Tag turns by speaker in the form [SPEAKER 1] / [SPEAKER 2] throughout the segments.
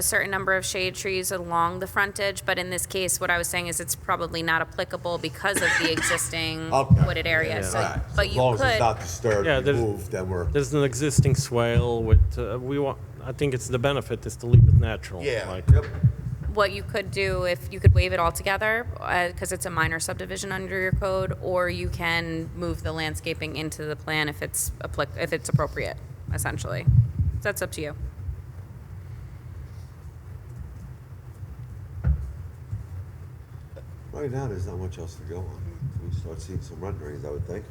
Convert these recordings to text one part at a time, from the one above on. [SPEAKER 1] a certain number of shade trees along the frontage, but in this case, what I was saying is it's probably not applicable because of the existing
[SPEAKER 2] Okay.
[SPEAKER 1] wooded area, so,
[SPEAKER 2] Right.
[SPEAKER 1] but
[SPEAKER 2] As
[SPEAKER 1] you
[SPEAKER 2] long as it's
[SPEAKER 1] could,
[SPEAKER 2] not disturbed,
[SPEAKER 3] Yeah, there's-
[SPEAKER 2] removed, then we're,
[SPEAKER 3] There's an existing swale with, uh, we want, I think it's the benefit is to leave it natural.
[SPEAKER 2] yeah,
[SPEAKER 3] like-
[SPEAKER 2] yep,
[SPEAKER 1] what you could do if, you could waive it altogether, because it's a minor subdivision under your code, or you can move the landscaping into the plan if it's applic, if it's appropriate, essentially. That's up to you.
[SPEAKER 2] right now, there's not much else to go on. We start seeing some renderings, I would think.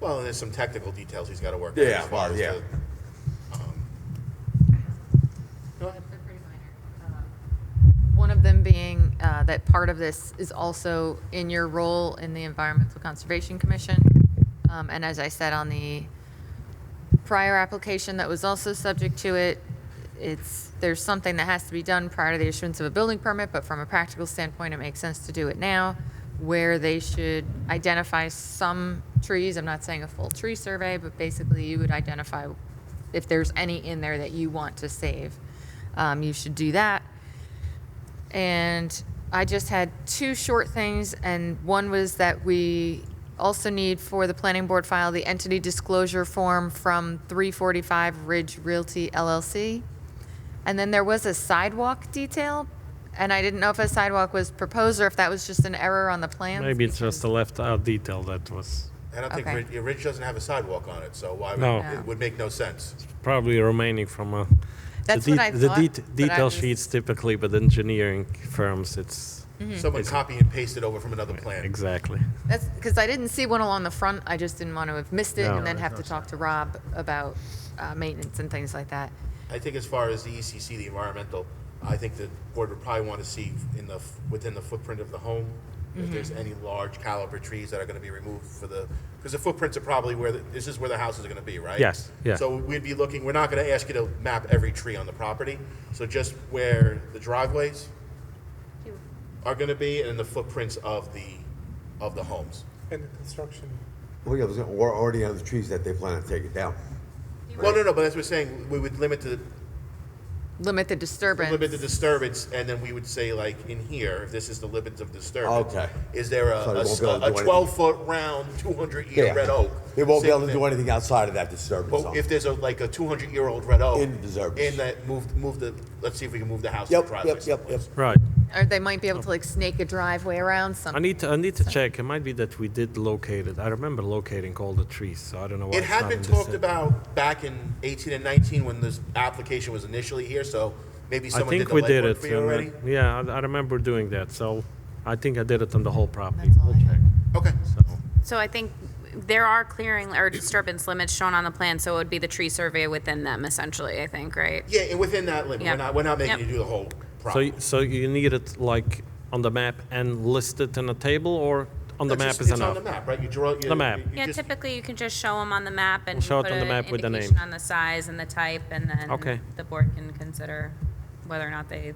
[SPEAKER 4] Well, and there's some technical details he's got to work. out
[SPEAKER 2] Yeah,
[SPEAKER 4] as far
[SPEAKER 2] well,
[SPEAKER 4] as
[SPEAKER 2] yeah.
[SPEAKER 4] the, um, Go ahead.
[SPEAKER 5] They're pretty minor. Um, One of them being uh, that part of this is also in your role in the Environmental Conservation Commission. Um, And as I said on the prior application that was also subject to it, it's, there's something that has to be done prior to the issuance of a building permit, but from a practical standpoint, it makes sense to do it now, where they should identify some trees, I'm not saying a full tree survey, but basically you would identify if there's any in there that you want to save. Um, you should do that. And I just had two short things, and one was that we also need for the planning board file the entity disclosure form from 345 Ridge Realty LLC. And then there was a sidewalk detail, and I didn't know if a sidewalk was proposed or if that was just an error on the plans.
[SPEAKER 3] Maybe it's just a left out detail that was
[SPEAKER 4] I don't think,
[SPEAKER 5] Okay.
[SPEAKER 4] Ridge- yeah, Ridge doesn't have a sidewalk on it, so why,
[SPEAKER 3] No.
[SPEAKER 4] would-
[SPEAKER 3] No.
[SPEAKER 4] it would make no sense.
[SPEAKER 3] probably remaining from a.
[SPEAKER 5] That's
[SPEAKER 3] the
[SPEAKER 5] what
[SPEAKER 3] det-
[SPEAKER 5] I
[SPEAKER 3] the
[SPEAKER 5] thought,
[SPEAKER 3] det-
[SPEAKER 5] but I
[SPEAKER 3] Detail
[SPEAKER 5] was-
[SPEAKER 3] sheets typically, but engineering firms, it's,
[SPEAKER 5] Mm-hmm.
[SPEAKER 4] Someone copy and paste it over from another plan.
[SPEAKER 3] exactly.
[SPEAKER 5] That's, because I didn't see one along the front, I just didn't want to have missed it
[SPEAKER 3] No.
[SPEAKER 5] and then have to talk to Rob about uh, maintenance and things like that.
[SPEAKER 4] I think as far as the ECC, the environmental, I think the board would probably want to see in the, f- within the footprint of the home,
[SPEAKER 3] Mm-hmm.
[SPEAKER 4] if there's any large caliber trees that are going to be removed for the, because the footprints are probably where, the- this is where the houses are going to be, right?
[SPEAKER 3] Yes, yeah.
[SPEAKER 4] So we'd be looking, we're not going to ask you to map every tree on the property, so just where the driveways are going to be and the footprints of the, of the homes.
[SPEAKER 6] And the construction.
[SPEAKER 2] Well, yeah, there's- we're already on the trees that they plan to take it down.
[SPEAKER 4] Well, no, no, but that's what we're saying, we would limit the,
[SPEAKER 5] Limit the disturbance.
[SPEAKER 4] limit the disturbance, and then we would say like in here, if this is the limits of disturbance.
[SPEAKER 2] Okay.
[SPEAKER 4] Is there a,
[SPEAKER 2] So they
[SPEAKER 4] a
[SPEAKER 2] won't be able to do anything.
[SPEAKER 4] twelve foot round, two hundred
[SPEAKER 2] Yeah.
[SPEAKER 4] year red oak?
[SPEAKER 2] They won't be
[SPEAKER 4] Same
[SPEAKER 2] able to
[SPEAKER 4] thing.
[SPEAKER 2] do anything outside of that disturbance
[SPEAKER 4] But
[SPEAKER 2] zone.
[SPEAKER 4] if there's a, like a two hundred year old red oak.
[SPEAKER 2] In the disturbance.
[SPEAKER 4] In that, move, move the, let's see if we can move the house. to
[SPEAKER 2] Yep,
[SPEAKER 4] driveways
[SPEAKER 2] yep, yep, yep.
[SPEAKER 4] someplace.
[SPEAKER 3] Right.
[SPEAKER 5] Or they might be able to like snake a driveway around
[SPEAKER 3] Oh. I
[SPEAKER 5] something.
[SPEAKER 3] need to, I need to check. It might be that we did locate it. I remember locating all the trees, so I don't know why.
[SPEAKER 4] It
[SPEAKER 3] it's
[SPEAKER 4] had
[SPEAKER 3] not
[SPEAKER 4] been
[SPEAKER 3] in this
[SPEAKER 4] talked
[SPEAKER 3] area.
[SPEAKER 4] about back in eighteen and nineteen when this application was initially here, so maybe
[SPEAKER 3] I
[SPEAKER 4] someone did
[SPEAKER 3] think
[SPEAKER 4] the
[SPEAKER 3] we did
[SPEAKER 4] legwork
[SPEAKER 3] it.
[SPEAKER 4] for you
[SPEAKER 3] and, uh,
[SPEAKER 4] already?
[SPEAKER 3] Yeah, I, I remember doing that, so I think I did it on the whole property.
[SPEAKER 5] That's all I had.
[SPEAKER 4] Okay,
[SPEAKER 1] So I think there are clearing or disturbance limits shown on the plan, so it would be the tree survey within them essentially, I think, right?
[SPEAKER 4] yeah, and within that limit,
[SPEAKER 1] Yeah.
[SPEAKER 4] we're not, we're not making
[SPEAKER 1] Yep.
[SPEAKER 4] you do the whole
[SPEAKER 3] So,
[SPEAKER 4] property.
[SPEAKER 3] y- so you need it like on the map and listed in a table, or on the
[SPEAKER 4] It's
[SPEAKER 3] map
[SPEAKER 4] just-
[SPEAKER 3] is
[SPEAKER 4] It's
[SPEAKER 3] enough?
[SPEAKER 4] on the map, right? You draw. you-
[SPEAKER 3] The map.
[SPEAKER 4] you
[SPEAKER 1] Yeah,
[SPEAKER 4] just-
[SPEAKER 1] typically you can just show them on the map and
[SPEAKER 3] We'll show it
[SPEAKER 1] put
[SPEAKER 3] on the
[SPEAKER 1] an
[SPEAKER 3] map with the name.
[SPEAKER 1] indication on the size and the type, and then
[SPEAKER 3] Okay.
[SPEAKER 1] the board can consider whether or not they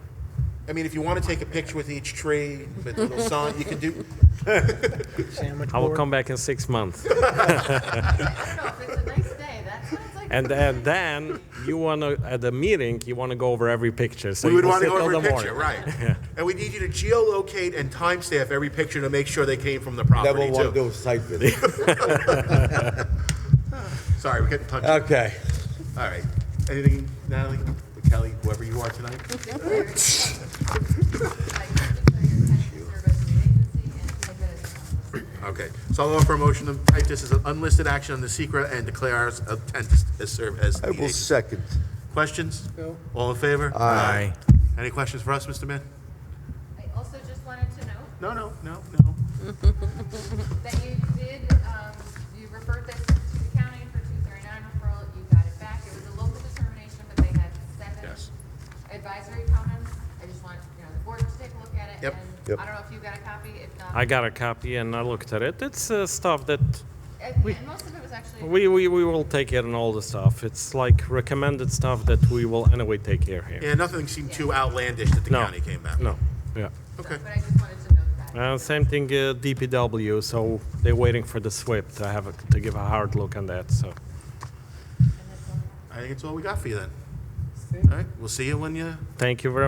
[SPEAKER 4] I mean, if you want to take a picture with each tree, with a little sign, you can do,
[SPEAKER 6] Sandwich
[SPEAKER 3] I will
[SPEAKER 6] board.
[SPEAKER 3] come back in six months,
[SPEAKER 5] I don't know, if it's a nice day, that sounds like.
[SPEAKER 3] and and then you wanna at the meeting you wanna go over every picture. So
[SPEAKER 4] we
[SPEAKER 3] you
[SPEAKER 4] would
[SPEAKER 3] will
[SPEAKER 4] want to
[SPEAKER 3] sit
[SPEAKER 4] go
[SPEAKER 3] till
[SPEAKER 4] over a
[SPEAKER 3] the
[SPEAKER 4] picture,
[SPEAKER 3] morning.
[SPEAKER 4] right? And we need you to geolocate and timestamp every picture to make sure they came from the
[SPEAKER 2] Then we'll
[SPEAKER 4] property
[SPEAKER 2] want to do
[SPEAKER 4] too.
[SPEAKER 2] a site visit.
[SPEAKER 4] Sorry, we're getting touched. All
[SPEAKER 2] Okay.
[SPEAKER 4] right. Anything, Natalie, Kelly, whoever you are tonight? Okay, so I'll offer a motion to type this as an unlisted action on the secret and declare our intent to serve as
[SPEAKER 2] I
[SPEAKER 4] lead
[SPEAKER 2] will
[SPEAKER 4] agency.
[SPEAKER 2] second.
[SPEAKER 4] Questions?
[SPEAKER 6] No.
[SPEAKER 4] All in favor?
[SPEAKER 2] Aye.
[SPEAKER 4] Any questions for us, Mr. Mann?
[SPEAKER 5] I also just wanted to note
[SPEAKER 4] No, no, no, no.
[SPEAKER 5] that you did, um, you referred this to the county for two thirty-nine referral, you got it back, it was a local determination, but they had seven
[SPEAKER 4] Yes.
[SPEAKER 5] advisory comments. I just want, you know, the board to take a look at it,
[SPEAKER 4] Yep.
[SPEAKER 5] and
[SPEAKER 2] Yep.
[SPEAKER 5] I don't know if you got a copy, if not.
[SPEAKER 3] I got a copy and I looked at it. It's uh, stuff that
[SPEAKER 5] And
[SPEAKER 3] we-
[SPEAKER 5] and most of it was actually.
[SPEAKER 3] we, we we will take care and all the stuff. It's like recommended stuff that we will anyway take care here.
[SPEAKER 4] Yeah, nothing seemed too outlandish that the
[SPEAKER 3] No.
[SPEAKER 4] county came back. with.
[SPEAKER 3] No, yeah.
[SPEAKER 4] Okay.
[SPEAKER 5] But I just wanted to note that.
[SPEAKER 3] Uh, same thing, uh, DPW, so they're waiting for the SWIP to have, a- to give a hard look on that, so.
[SPEAKER 4] I think it's all we got for you then.
[SPEAKER 6] Say
[SPEAKER 7] All right, we'll see you when you
[SPEAKER 4] Thank you very